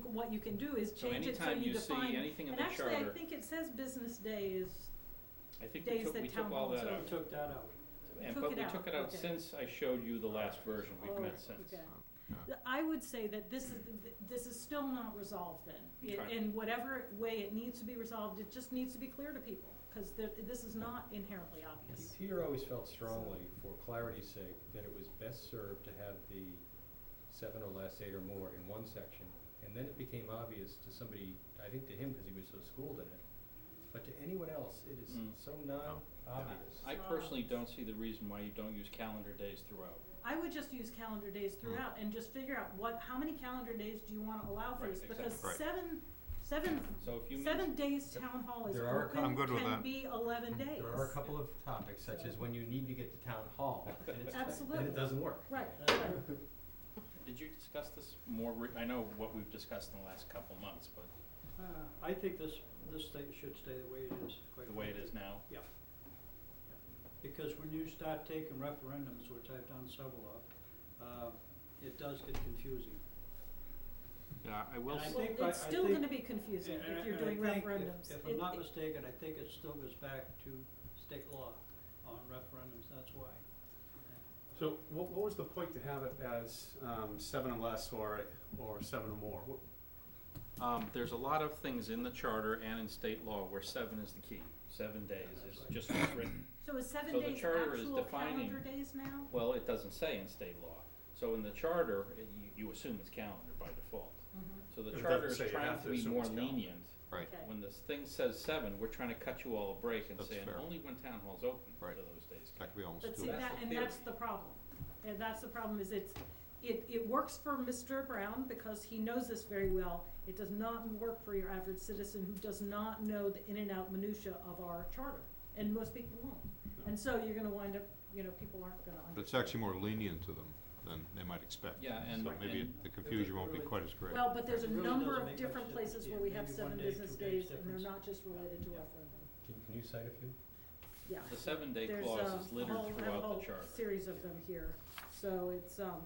what you can do is So change it so anytime you you see define. anything in And the actually, I charter, think it says business day is, I think we days took, that we took town all halls that are out. We took that out. And, Took but it we out, took it out okay. since I showed you the last version, we've Oh, met since. okay. Th- I would say that this is, th- this is still not resolved then. It- Okay. In whatever way it needs to be resolved, it just needs to be clear to people, because this is not inherently obvious. Peter always felt strongly, for clarity's sake, that it was best served to have the seven or less, eight or more in one section. And then it became obvious to somebody, I think to him, because he was so schooled in it, but to anyone else, it is Mm. so non-obvious. I personally don't see the reason why you don't use calendar days throughout. I would just use calendar Mm. days throughout and just figure out what, how many calendar days do you wanna allow for Right, this? Because exactly. Right. seven, seven, So if you meet, seven days town hall is There are a open, cou- I'm good with can that. be eleven days. Mm. There are a couple of topics, such as when you need to get to town hall, and it's, and Absolutely. it doesn't work. Right, right. did you discuss this more, re- I know what we've discussed in the last couple months, but Uh, I think this, this thing should stay the way it is, quite the way it frankly. is now, Because when you start taking referendums, which I've done several of, uh, it does get confusing. yeah, I will, And I s- Well, think I- it's I still think- gonna be confusing And- if and you're I doing think, if- referendums. If It- I'm not it- mistaken, I think it still goes back to state law on referendums, that's why. So what, what was the point to have it as, um, seven or less or, or seven or more? What- um, there's a lot of things in the charter and in state law where seven is the key. Seven days is just what's written. So is seven So the days charter is actual defining- calendar days now? Well, it doesn't say in state law. So in the charter, it- you, you assume it's calendar by default. So It the doesn't charter is say you trying have to to be assume more it's calendar. lenient. Right. Okay. Mhm. When this thing says seven, we're trying to cut you all a break and That's saying fair. only when town hall's open do Right. those days That count. could be almost But two. see, That's that, the and theory. that's the problem. And that's the problem, is it's, it, it works for Mr. Brown because he knows this very well. It does not work for your average citizen who does not know the in and out minutia of our charter, and most people won't. And so you're gonna wind up, you know, people aren't gonna But understand. it's actually more lenient to them than they might expect. Yeah, and- So maybe and- the confusion won't be quite as great. Well, but there's a It really number doesn't of make different much places where difference. we Yeah, have maybe seven one day, business two days days, and they're difference. not just related to Yeah. referendum, Can, can you cite a few? yeah. The seven-day There's clause is a littered whole, I have a throughout whole the charter. series of them here. So it's, um,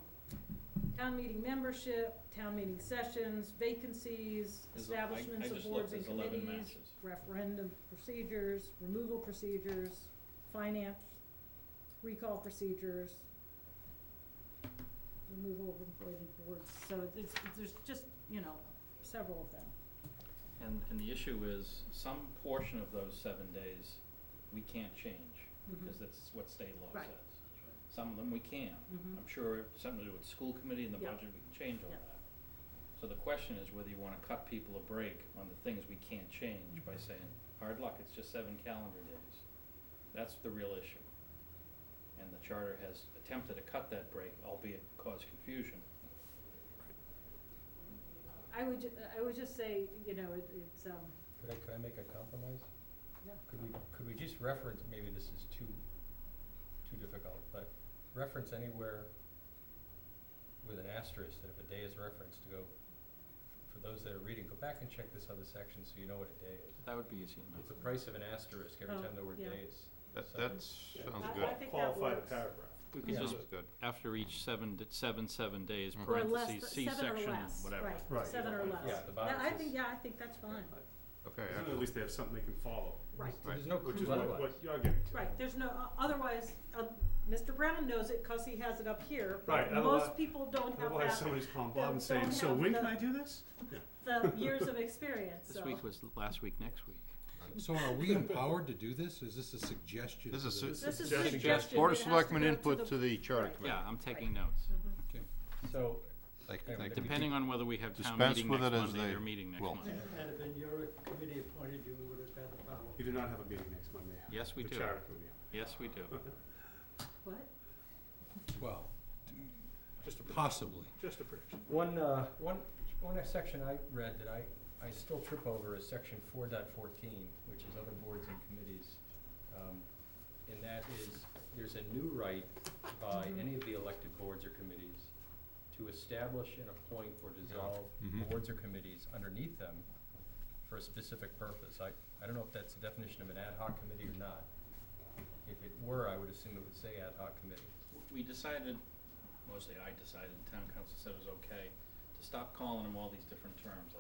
town meeting membership, town meeting sessions, vacancies, There's a- I- I establishments of just looked, boards and there's 11 committees, matches. referendum procedures, removal procedures, finance, recall procedures, removal of appointed boards. So it's, it's- there's just, you know, several of them. And, and the issue is, some portion of those seven days, we can't change, because that's what state law Mm-hmm. Right. says. Some of them we can. Mhm. I'm sure it's something to do with the school committee and the Yeah. budget, we can change all Yeah. that. So the question is whether you wanna cut people a break on the things we can't change by Mm-hmm. saying, hard luck, it's just seven calendar days. That's the real issue. And the charter has attempted to cut that break, albeit cause confusion. I would, ju- I would just say, you know, it, it's, um, Could I, could I make a compromise? Yeah. Could we, could we just reference, maybe this is too, too difficult, but reference anywhere with an asterisk, that if a day is referenced, to go, for those that are reading, go back and check this other section so you know what a day is. That would be easy It's the price of an asterisk every Oh, time the word yeah. day is. That, So- that I, sounds I think that good. works. We could could Yeah. just, just- Sounds good. after each seven, seven, seven days, Mhm. Or less, parentheses, th- seven or C-section, less, whatever. right, Right, seven or yeah, less. yeah, the box Yeah, I is- think, yeah, I think that's fine, Okay, Then at excellent. least they have something they can follow, right, There's no which is clue what, otherwise. what you're getting to. right, there's no, o- otherwise, uh, Mr. Brown knows it cause he has it up here, but Right, otherwise- most people don't have Otherwise, that, somebody's calling Don't- Bob and saying, don't so have when the- can I do this? the years of experience, so. This week was last week, next week. So are we empowered to do this? Is this a suggestion? This to is the- a- This is Suggestion. suggestion, Board it of has to Selectmen go to input to the Charter Right. Committee. Yeah, I'm taking notes. Mm-hmm. So, Thank- Okay, thank you. Depending on whether we have town Dispense meeting with next it as Monday they or meeting next will. month. Had it been your committee appointed, you would have had the power. You do not have a meeting next Monday. Yes, we The do. charter committee. Yes, we do. What? Well, just possibly. Just a prediction. one, uh, one, one section I read that I, I still trip over is section four dot fourteen, which is other boards and committees. Um, and that is, there's a new right by any of the elected boards or committees to establish and appoint or dissolve Mhm. boards or committees underneath them for a specific purpose. I, I don't know if that's the definition of an ad hoc committee or not. If it were, I would assume it would say ad hoc committee. We decided, mostly I decided, town council said it was okay, to stop calling them all these different terms,